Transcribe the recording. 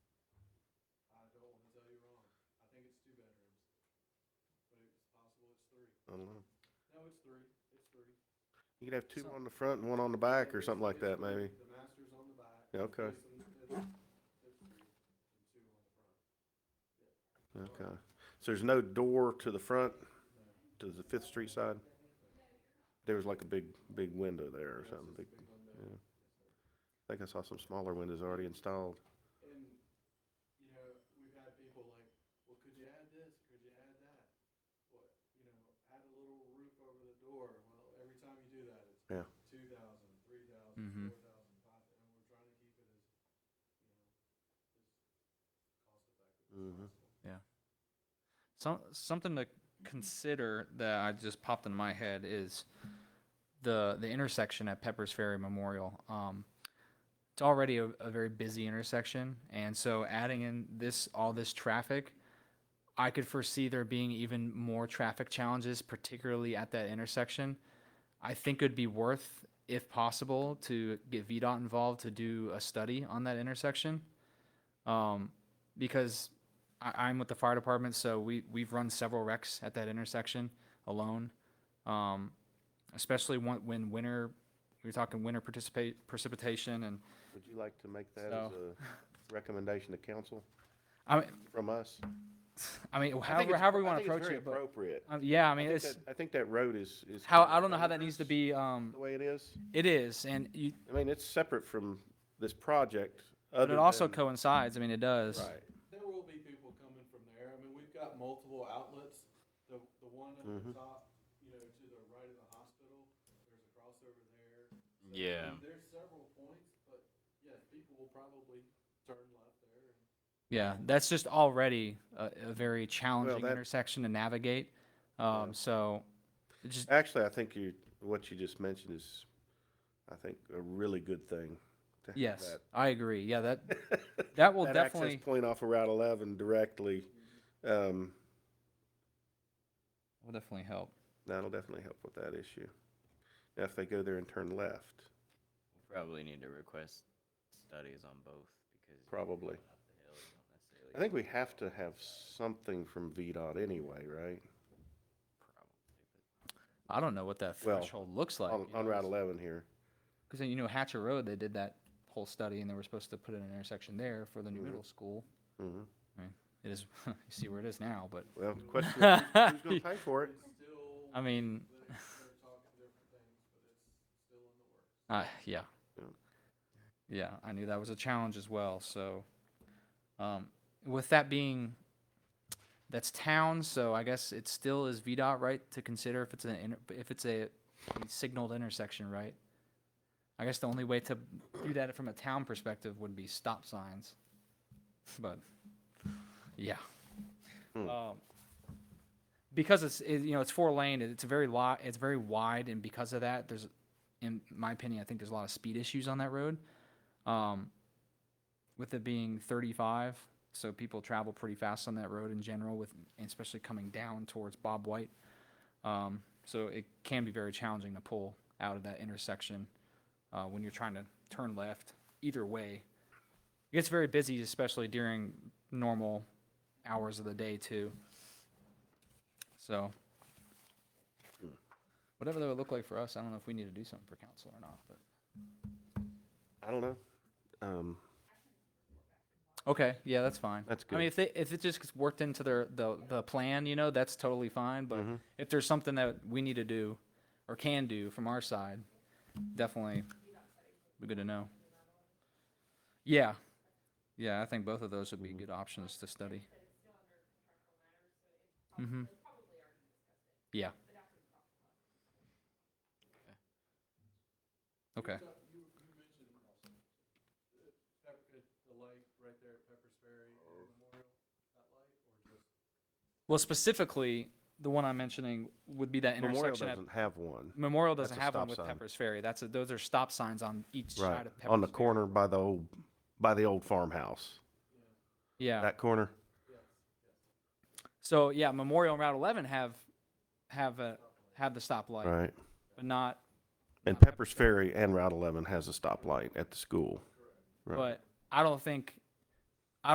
three. I don't know. No, it's three, it's three. You could have two So- on the front and one on the back or something like It's that, three. maybe. The master's on the back. Yeah, okay. It's- it's- it's three and two on the front. Okay. So there's no door to the front, to the Fifth Street side? There was like a big, big window there or That's something. just Big, a big window. yeah. I think I saw some smaller windows already installed. And, you know, we've had people like, well, could you add this? Could you add that? What, you know, add a little roof over the door. Well, every time you do that, it's Yeah. two thousand, three thousand, Mhm. four thousand, five, and we're trying to keep it as, you know, as cost effective as Mhm. possible. Some, something to consider that I just popped in my head is the, the intersection at Pepper's Ferry Memorial. Um, it's already a, a very busy intersection, and so adding in this, all this traffic, I could foresee there being even more traffic challenges, particularly at that intersection. I think it'd be worth, if possible, to get VDOT involved to do a study on that intersection. Um, because I, I'm with the fire department, so we, we've run several wrecks at that intersection alone. Um, especially when, when winter, we were talking winter participate, precipitation and, Would you like to make that as So- a recommendation to council I mean, from us? I mean, I think however, it's- however we I want to think it's approach very it, but, Appropriate. um, yeah, I mean, think it's, that- I think that road is, is. how, I don't know how that needs to be, um, The way it is. it is, and you, I mean, it's separate from this project. but other it also than- coincides, I mean, it does. Right. There will be people coming from there. I mean, we've got multiple outlets. The, the one at the Mhm. top, you know, to the right of the hospital, there's a crossover there. So, I Yeah. mean, There's several points, but yes, people will probably turn left there. and- Yeah, that's just already a, a very challenging that- intersection to navigate, um, so, it just, Actually, I think you, what you just mentioned is, I think, a really good thing. to have yes, that- I agree, yeah, that, that will that definitely. access point off of Route 11 directly, um, Will definitely help. that'll definitely help with that issue. Now, if they go there and turn left, Probably need to request studies on both because. Probably. Up the hill, you don't necessarily I think we need have to all have that, something from VDOT anyway, right? probably, I don't know what that Well, threshold looks like. On, on Route 11 here. Because you know Hatcher Road, they did that whole study, and they were supposed to put in an intersection there for the new Mhm. middle school. Mhm. It is, you see where it is now, but Well, the question is, who's- who's going to pay for it? It's still, I mean, they're, they're talking different things, but it's still in the works. uh, yeah, Yeah. yeah, I knew that was a challenge as well. So, um, with that being, that's town, so I guess it still is VDOT right to consider if it's an inter- if it's a signaled intersection, right? I guess the only way to do that from a town perspective would be stop signs, but yeah. Hmm. Um, because it's it, you know it's four lane, it's very lot, it's very wide, and because of that, there's, in my opinion, I think there's a lot of speed issues on that road. Um, with it being 35, so people travel pretty fast on that road in general, with and especially coming down towards Bob White. Um, so it can be very challenging to pull out of that intersection uh, when you're trying to turn left either way. It gets very busy, especially during normal hours of the day too. So whatever that would look like for us, I don't know if we need to do something for council or not, but. I don't know. Um, Okay, yeah, that's fine. That's I mean, good. if they, if it just gets worked into their, the, the plan, you know, that's totally fine, but Mm-hmm. if there's something that we need to do or can do from our side, definitely be good to know. Yeah, yeah, I think both of those would be Mm-hmm. good options to study. Mm-hmm. Yeah. Okay, So you, you mentioned uh, Pepper, the light right there at Pepper's Ferry and Memorial, that light, or just? well, specifically, the one I'm mentioning would be that Memorial intersection at doesn't have one. Memorial doesn't That's a have one stop with sign. Pepper's Ferry. That's a, those are stop signs on each Right, side of Pepper's on the Ferry. corner by the old, by the old farmhouse, Yeah. that corner. so yeah, Memorial and Route 11 have have a have the stoplight, Right. but not. And not Pepper's Pepper's Ferry and Route 11 has a stoplight at the school. Right. But I don't think